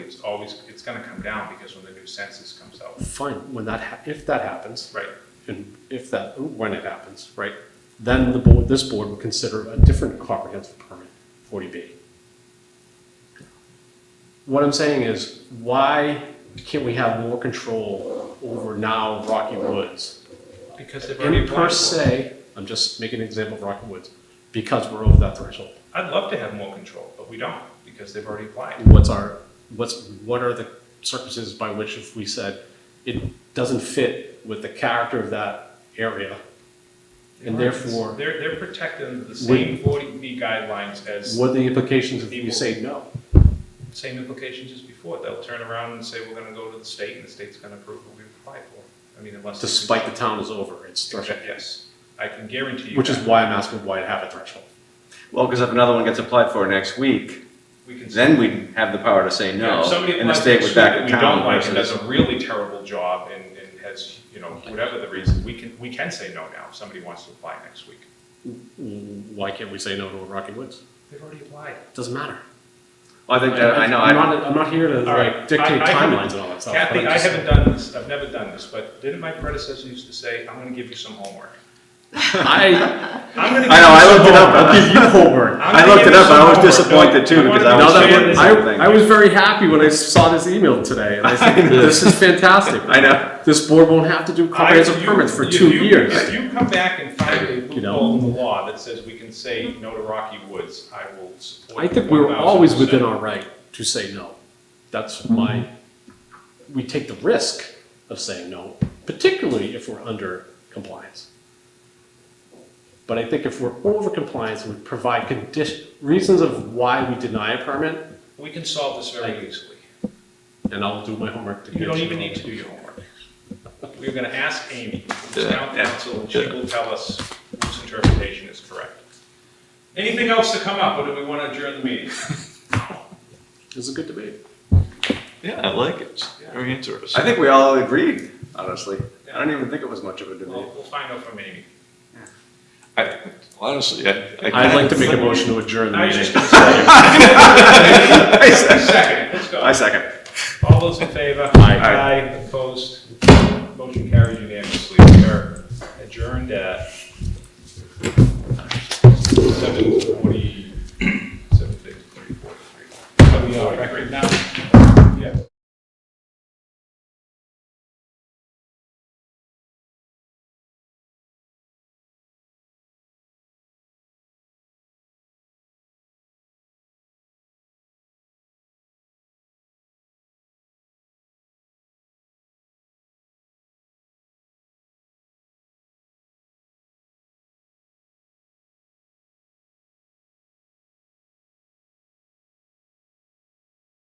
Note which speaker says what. Speaker 1: is always, it's gonna come down because when the new census comes out.
Speaker 2: Fine, when that, hap- if that happens,
Speaker 1: Right,
Speaker 2: and if that, when it happens, right, then the board, this board would consider a different comprehensive permit, forty B. What I'm saying is, why can't we have more control over now Rocky Woods?
Speaker 1: because they've already
Speaker 2: And per
Speaker 1: applied for it.
Speaker 2: se, I'm just making an example of Rocky Woods, because we're over that threshold.
Speaker 1: I'd love to have more control, but we don't, because they've already applied.
Speaker 2: what's our, what's, what are the circumstances by which if we said it doesn't fit with the character of that area? And therefore,
Speaker 1: They're, they're protecting the same forty B guidelines as,
Speaker 2: what are the implications if you say no?
Speaker 1: same implications as before. They'll turn around and say, we're gonna go to the state, and the state's gonna approve what we apply for. I mean, unless. they-
Speaker 2: Despite the town is over, it's threshold,
Speaker 1: Yes, I can guarantee you.
Speaker 2: which is
Speaker 1: that.
Speaker 2: why I'm asking why it have a threshold.
Speaker 3: Well, because if another one gets applied for next week,
Speaker 1: We can.
Speaker 3: then we have the power to say no,
Speaker 1: If somebody
Speaker 3: and the
Speaker 1: applies for
Speaker 3: state
Speaker 1: a
Speaker 3: was
Speaker 1: school
Speaker 3: back
Speaker 1: that
Speaker 3: in
Speaker 1: we don't
Speaker 3: town
Speaker 1: like and does
Speaker 3: versus.
Speaker 1: a really terrible job and, and has, you know, whatever the reason, we can, we can say no now if somebody wants to apply next week.
Speaker 2: Why can't we say no to Rocky Woods?
Speaker 1: They've already applied.
Speaker 2: Doesn't matter.
Speaker 3: Well, I think that, I know,
Speaker 2: I'm
Speaker 3: I,
Speaker 2: not, I'm not here to
Speaker 1: All right,
Speaker 2: like dictate
Speaker 1: I- I haven't-
Speaker 2: timelines and all that stuff. but
Speaker 1: Kathy,
Speaker 2: I'm
Speaker 1: I
Speaker 2: just-
Speaker 1: haven't done this, I've never done this, but didn't my predecessor used to say, I'm gonna give you some homework?
Speaker 2: I,
Speaker 1: I'm gonna give you
Speaker 3: I know, I
Speaker 1: some
Speaker 3: looked it up,
Speaker 2: I'll
Speaker 3: I-
Speaker 2: give you homework.
Speaker 1: I'm
Speaker 3: I
Speaker 1: gonna
Speaker 3: looked
Speaker 1: give
Speaker 3: it
Speaker 1: you
Speaker 3: up,
Speaker 1: some
Speaker 3: I was
Speaker 1: homework,
Speaker 3: disappointed
Speaker 1: Bill.
Speaker 3: too,
Speaker 1: I
Speaker 3: because
Speaker 1: wanted
Speaker 3: I
Speaker 1: to
Speaker 3: was
Speaker 2: No,
Speaker 1: understand
Speaker 3: saying
Speaker 2: that,
Speaker 3: the
Speaker 1: this.
Speaker 3: same thing.
Speaker 2: I, I was very happy when I saw this email today, and I said, this is fantastic.
Speaker 3: I know.
Speaker 2: This board won't have to do comprehensive
Speaker 1: I- you-
Speaker 2: permits for
Speaker 1: if
Speaker 2: two
Speaker 1: you-
Speaker 2: years.
Speaker 1: If you come back and find a
Speaker 2: You know.
Speaker 1: loophole in the law that says we can say no to Rocky Woods, I will support.
Speaker 2: I
Speaker 1: you
Speaker 2: think we were always
Speaker 1: 1000%.
Speaker 2: within our right to say no. That's my, we take the risk of saying no, particularly if we're under compliance. But I think if we're over compliance, we provide condition, reasons of why we deny a permit,
Speaker 1: We can solve this very easily.
Speaker 2: and I'll do my homework to get
Speaker 1: You don't
Speaker 2: you
Speaker 1: even
Speaker 2: on
Speaker 1: need
Speaker 2: that.
Speaker 1: to do your homework. We're gonna ask Amy, who's town council, and she will tell us whose interpretation is correct. Anything else to come up, or do we want to adjourn the meeting?
Speaker 2: It was a good debate.
Speaker 4: Yeah, I like it. Very interesting.
Speaker 3: I think we all agreed, honestly.
Speaker 1: Yeah.
Speaker 3: I don't even think it was much of a debate.
Speaker 1: We'll, we'll find out from Amy.
Speaker 4: I, honestly, I,
Speaker 2: I'd like to make a motion to adjourn the
Speaker 1: I was
Speaker 2: meeting.
Speaker 1: just gonna say. Second, let's
Speaker 3: I
Speaker 1: go.
Speaker 3: second.
Speaker 1: All those in favor?
Speaker 2: Aye.
Speaker 1: Aye, opposed, motion carried unanimously. We are adjourned at seven forty, seven fifty, three forty-three. Are we on record now?